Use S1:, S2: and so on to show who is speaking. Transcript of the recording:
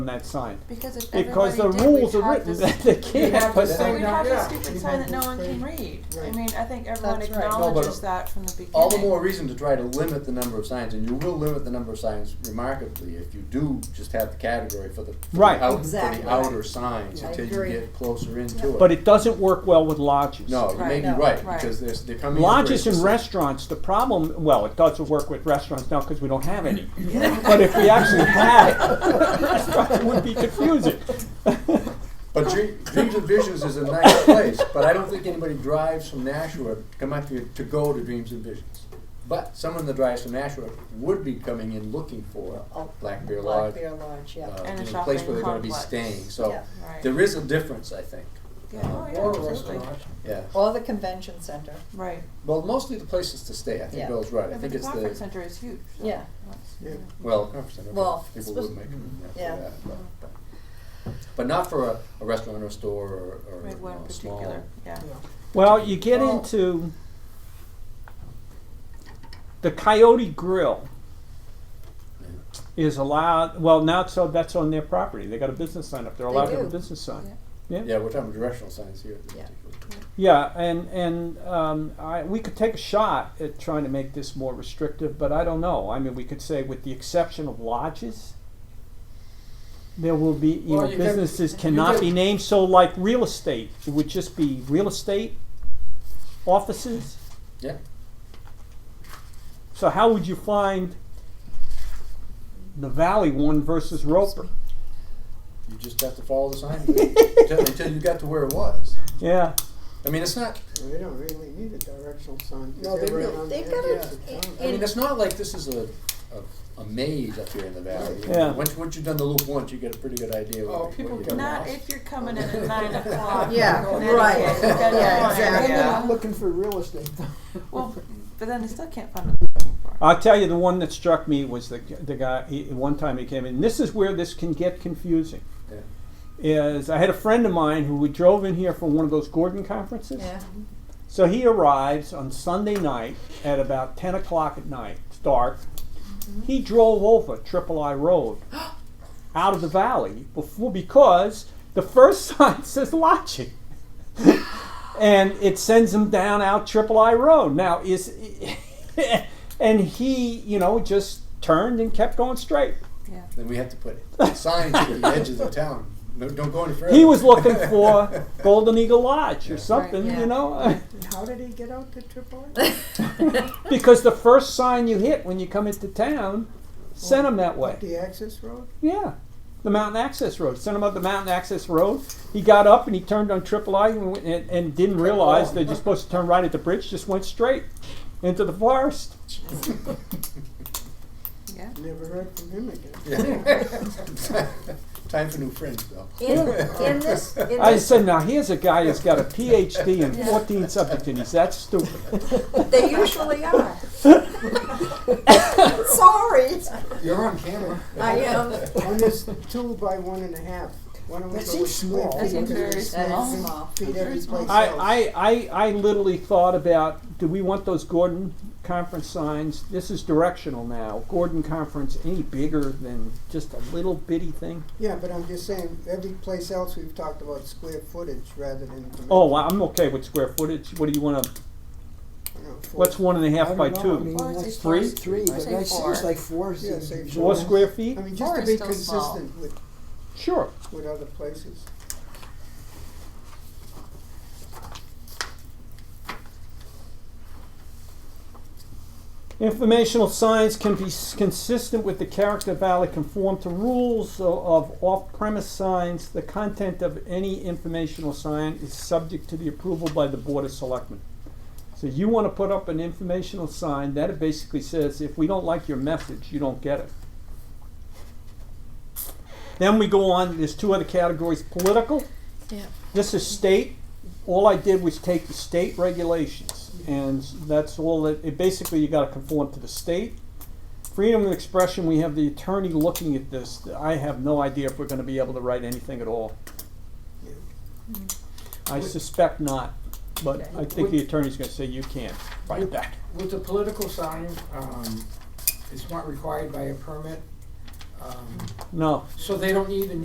S1: on that sign.
S2: Because if
S1: Because the
S2: everybody did, we'd
S1: rules are
S2: have
S1: written
S2: this-
S1: that they
S3: We'd
S1: can't
S3: have
S1: put
S3: to
S1: that.
S3: say-
S2: We'd have
S3: Yeah.
S2: a stupid sign that no one can read. I
S3: Right.
S2: mean, I think everyone
S4: That's right. No, but
S2: acknowledges that from the beginning.
S4: All the more reason to try to limit the number of signs, and you will limit the number of signs remarkably if you do just have the category for the, for
S1: Right.
S4: the, out, for
S3: Exactly.
S4: the outer signs
S3: Yeah, I
S4: until you
S3: agree.
S4: get closer into it.
S1: But it doesn't work well with lodges.
S4: no, you may
S2: Right,
S4: be
S2: no,
S4: right,
S2: right.
S4: because there's, they're coming in very
S1: Lodges and
S4: specific-
S1: restaurants, the problem, well, it doesn't work with restaurants now because we don't have any. But if we actually had restaurants, it would be confusing.
S4: But Dre- Dreams and Visions is a nice place, but I don't think anybody drives from Nashua to come up here to go to Dreams and Visions. But someone that drives from Nashua would be coming in looking for Black Bear Lodge,
S3: Black Bear Lodge, yeah.
S4: uh,
S2: Oh, And a
S4: you know, a place
S2: shopping
S4: where they're going to be
S2: complex.
S4: staying. So
S3: Yeah.
S2: Right.
S4: there is a difference, I think.
S2: Yeah, oh yeah,
S5: Or a
S2: absolutely.
S5: restaurant.
S4: Yeah.
S3: Or the convention center,
S2: Right.
S4: Well, mostly the places to stay. I think
S3: Yeah.
S4: Bill's right. I
S2: Yeah, but
S4: think
S2: the
S4: it's
S2: conference
S4: the
S2: center is huge. so
S3: yeah.
S2: that's-
S5: Yeah.
S4: well, conference center.
S3: Well,
S4: people
S3: supposed-
S4: would make it.
S3: yeah.
S4: But, but not for a, a restaurant or a store or, or
S2: Right,
S4: you
S2: one
S4: know,
S2: in
S4: a small-
S2: particular, yeah.
S1: Well, you get
S3: Well-
S1: into the Coyote Grill is allowed. Well, now it's so that's on their property. They got a business sign up. They're
S3: They
S1: allowed to have a
S3: do.
S1: business sign.
S4: Yeah, we're talking about directional signs here. At this
S3: Yeah.
S4: particular-
S1: Yeah, and and um, I, we could take a shot at trying to make this more restrictive, but I don't know. I mean, we could say, with the exception of lodges, there will be you
S4: Well,
S1: know
S4: you can-
S1: businesses
S4: you
S1: cannot
S4: can-
S1: be named. So, like real estate, it would just be real estate offices.
S4: Yeah.
S1: So, how would you find the Valley one versus Roper?
S4: You just have to follow the sign until, until you got to where it was.
S1: Yeah,
S4: I mean, it's not.
S5: They don't really need a directional sign. 'cause
S4: No, they
S5: they're right
S4: really-
S5: on
S3: they've
S5: the
S3: got
S5: edges
S3: a-
S5: of town.
S4: I mean, it's not like this is a a, a maze up here in the valley.
S1: Yeah.
S4: Once once you've done the loop once, you get a pretty good idea.
S5: Oh,
S4: what,
S5: people
S4: what
S5: get
S4: you're
S2: Not
S5: lost.
S2: if you're coming in at nine o'clock. from
S3: Yeah,
S2: Connecticut,
S3: right.
S2: you gotta
S3: Yeah,
S2: go on
S3: exactly.
S5: They're not
S2: area.
S5: looking for real estate though.
S2: Well, but then they still can't find what they're looking for.
S1: I'll tell you the one that struck me was the the guy. He, one time he came in. This is where this can get confusing.
S4: Yeah.
S1: Is I had a friend of mine who drove in here from one of those Gordon conferences. So he arrives on Sunday night at about ten o'clock at night. It's dark. He drove over Triple I Road out of the valley before because the first sign says lodging. and it sends him down out Triple I Road. Now is and he, you know, just turned and kept going straight.
S2: Yeah.
S4: Then we have to put signs at the edges of town. No, don't go any further.
S1: He was looking for Golden Eagle Lodge or
S4: Right,
S1: something,
S2: yeah.
S1: you know,
S5: And how did he get out to Triple A?
S1: because the first sign you hit when you come into town sent him that way.
S5: The access road?
S1: Yeah, the mountain access road. Sent him up the mountain access road. He got up and he turned on Triple I and, went- and, and didn't realize that you're supposed to turn right at the bridge. Just went straight into the forest.
S2: Yeah.
S5: Never heard from him again.
S4: Yeah. Time for new friends, though.
S3: In, in this, in
S1: I
S3: this,
S1: said, now here's a guy who's got a PhD in 14 subject and he's that stupid.
S3: they usually are. Sorry,
S4: You're on camera.
S3: I am.
S5: On this two by one and a half, one of them
S3: That seems
S5: small.
S3: small.
S2: That seems very small.
S3: That is small.
S5: Feet
S2: Very
S5: every
S2: small.
S5: place else.
S1: I, I, I, I literally thought about do we want those Gordon conference signs? This is directional now. Gordon conference, any bigger than just a little bitty thing?
S5: Yeah, but I'm just saying, every place else we've talked about square footage rather than.
S1: Oh, well, I'm okay with square footage. What do you want to?
S5: you know, four-
S1: What's one and a
S6: I
S1: half
S6: don't
S1: by
S6: know,
S1: two?
S6: I mean,
S2: Or is
S6: that's
S2: it
S1: three?
S2: four?
S6: Three,
S2: I
S6: but
S2: say
S6: that
S2: four.
S6: seems like four
S5: Yeah,
S6: seems
S5: say
S1: Four
S6: usual.
S1: square feet?
S5: I mean,
S2: Four
S5: just
S2: is
S5: to be
S2: still small.
S5: consistent with,
S1: Sure.
S5: with other places.
S1: Informational signs can be s- consistent with the character of Valley, conform to rules o- of off-premise signs. The content of any informational sign is subject to the approval by the Board of Selectmen. So you want to put up an informational sign, that it basically says, if we don't like your message, you don't get it. Then we go on, there's two other categories, political.
S3: Yeah.
S1: This is state, all I did was take the state regulations, and that's all that, it, basically, you gotta conform to the state. Freedom of expression, we have the attorney looking at this, I have no idea if we're gonna be able to write anything at all.
S5: Yeah.
S1: I suspect not, but I think the attorney's gonna say you can't write that.
S6: With the political sign, um, it's not required by a permit.
S7: um,
S8: No.
S6: So they don't even